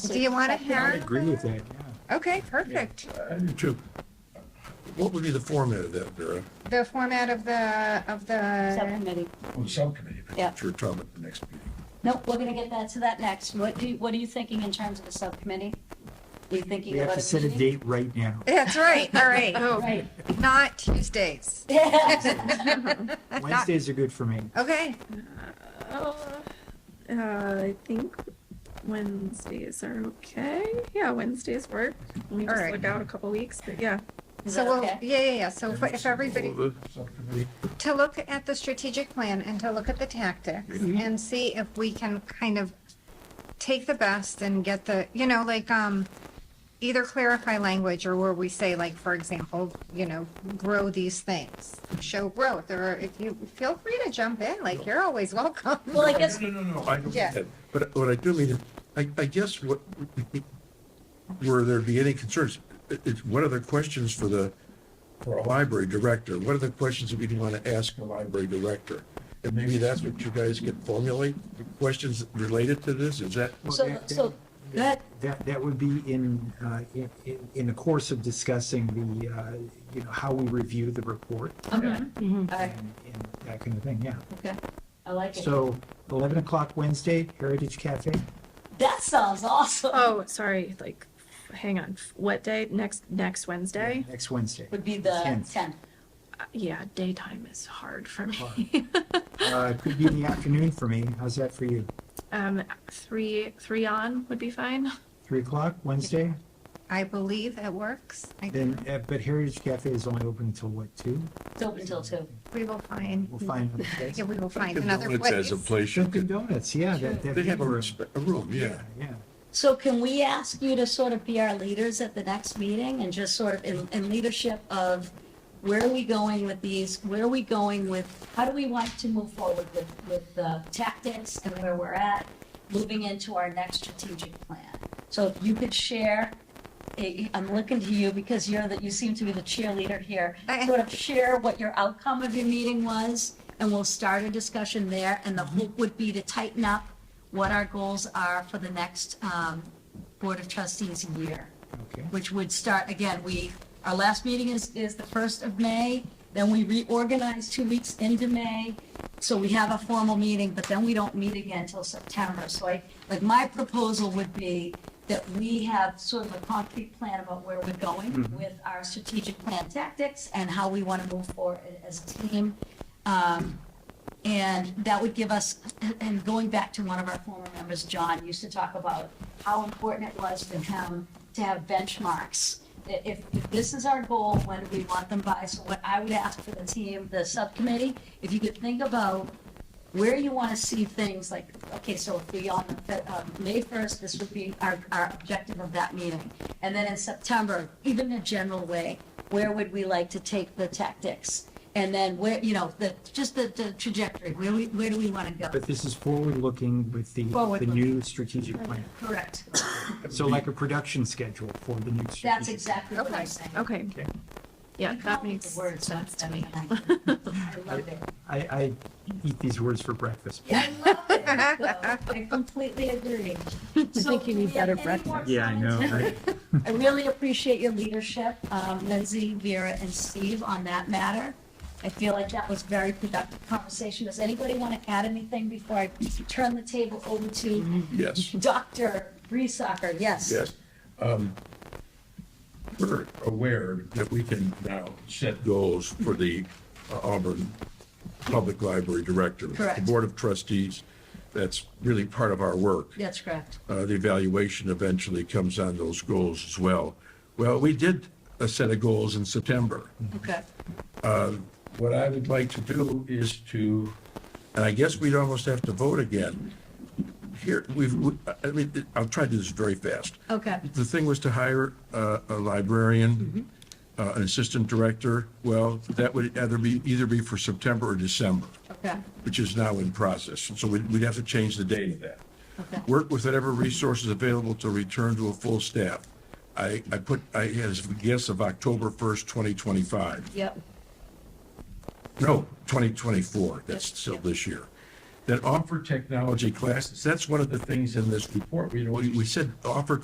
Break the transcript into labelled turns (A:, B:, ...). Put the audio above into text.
A: Do you want to
B: I
A: have?
B: agree with that.
A: Okay, perfect.
C: I do too. What would be the format of that, Vera?
A: The format of the, of the,
B: Subcommittee.
C: On the subcommittee, but
B: Yeah.
C: you're talking about the next meeting.
B: Nope, we're gonna get that to that next. What do, you- what are you thinking in terms of a subcommittee? Are you thinking
D: We have
B: about
D: to
B: a
D: set a
B: meeting?
D: date right now.
A: that's right, all right. Oh,
B: Right.
A: Not Tuesdays.
D: Wednesdays are good for me.
A: Okay,
E: Uh, I think Wednesdays are okay. Yeah, Wednesdays work. Let me
A: All
E: just
A: right.
E: look out a couple weeks, but yeah.
B: Is
A: so
B: that
A: we'll, yeah,
B: okay?
A: yeah, yeah. So if- if everybody,
C: Well, the subcommittee,
A: to look at the strategic plan and to look at the tactics
B: Mm-hmm.
A: and see if we can kind of take the best and get the, you know, like, um, either clarify language or where we say like, for example, you know, grow these things, show growth, or if you, feel free to jump in, like, you're always welcome.
B: Well, I guess,
C: No, no, no, no, I don't mean
A: Yeah.
C: that. But what I do mean, is, I, I guess what, were there be any concerns? it- It's, what are the questions for the, for a library director? What are the questions that we'd want to ask a library director? And maybe that's what you guys can formulate, questions related to this, is that?
D: Well,
B: so,
D: that-
B: so, go ahead.
D: that- That, that would be in, uh, in, in- in the course of discussing the, uh, you know, how we review the report
A: Mm-hmm.
B: Okay, all right,
D: and, and that kind of thing, yeah.
B: okay. I like it.
D: So eleven o'clock Wednesday, Heritage Cafe.
B: That sounds awesome.
E: Oh, sorry. Like, hang on. What day? Next next Wednesday?
D: Next Wednesday.
B: Would be the
D: 10th.
B: tenth.
E: Uh, Yeah, daytime is hard for me.
D: Uh, could be in the afternoon for me. How's that for you?
E: um, three three on would be fine.
D: Three o'clock Wednesday?
A: I believe it works. I,
D: Then, uh, but Heritage Cafe is only open until what, two?
B: It's open till two.
A: we will find,
D: We'll find another place.
A: yeah, we will find another place.
C: place. you
D: Dunkin'
C: could-
D: Donuts, yeah, that, that.
C: They have a
D: room.
C: resp- a room, yeah.
D: Yeah.
B: So can we ask you to sort of be our leaders at the next meeting and just sort of in, in leadership of where are we going with these? Where are we going with, how do we want to move forward with, with the tactics and where we're at moving into our next strategic plan? So if you could share, eh, I'm looking to you because you're the, you seem to be the cheerleader here.
A: I-
B: Sort of share what your outcome of your meeting was and we'll start a discussion there. And the hope would be to tighten up what our goals are for the next um, Board of Trustees year,
D: Okay.
B: which would start, again, we, our last meeting is, is the 1st of May, then we reorganize two weeks into May, so we have a formal meeting, but then we don't meet again until September. So I, like, my proposal would be that we have sort of a concrete plan about where we're going with our strategic plan tactics and how we want to move forward as a team. Um, and that would give us, and going back to one of our former members, John, used to talk about how important it was for him to have benchmarks. That If, if this is our goal, when do we want them by? So what I would ask for the team, the subcommittee, if you could think about where you want to see things like, okay, so if we on the fe- uh, May 1st, this would be our, our objective of that meeting. And then in September, even in a general way, where would we like to take the tactics? And then where, you know, the, just the the trajectory, where we, where do we want to go?
D: But this is forward-looking with the, the
B: Forward-looking.
D: new strategic plan.
B: Correct.
D: So like a production schedule for the new strategic.
B: That's exactly what I'm saying.
E: Okay.
D: Okay.
E: Yeah,
B: You
E: that
B: call me
E: makes
B: the words,
E: sense to
B: that's
E: me.
B: better. I love it.
D: I, I eat these words for breakfast.
B: I love it. So, I completely agree. I think you need better breakfast.
D: Yeah, I know, right?
B: I really appreciate your leadership, um, Lindsay, Vera, and Steve on that matter. I feel like that was very productive conversation. Does anybody want to add anything before I turn the table over to
C: Yes,
B: Dr. Breesacker? Yes.
C: yes. Um, We're aware that we can now set goals for the uh, Auburn Public Library Director.
B: Correct.
C: The Board of Trustees, that's really part of our work.
B: That's correct.
C: Uh, The evaluation eventually comes on those goals as well. Well, we did a set of goals in September.
B: Okay.
C: What I would like to do is to, and I guess we'd almost have to vote again. Here, we've, we- I mean, I'll try to do this very fast.
B: Okay. Mm-hmm.
C: The thing was to hire uh, a librarian, uh, an assistant director. Well, that would either be, either be for September or December,
B: Okay.
C: which is now in process. So we'd, we'd have to change the date of that.
B: Okay.
C: Work with whatever resources available to return to a full staff. I, I put, I had a guess of October 1st, 2025.
B: Yep.
C: No, 2024, that's
B: Yes,
C: still
B: yeah.
C: this year. that offer technology classes. That's one of the things in this report. You know, we, we said offer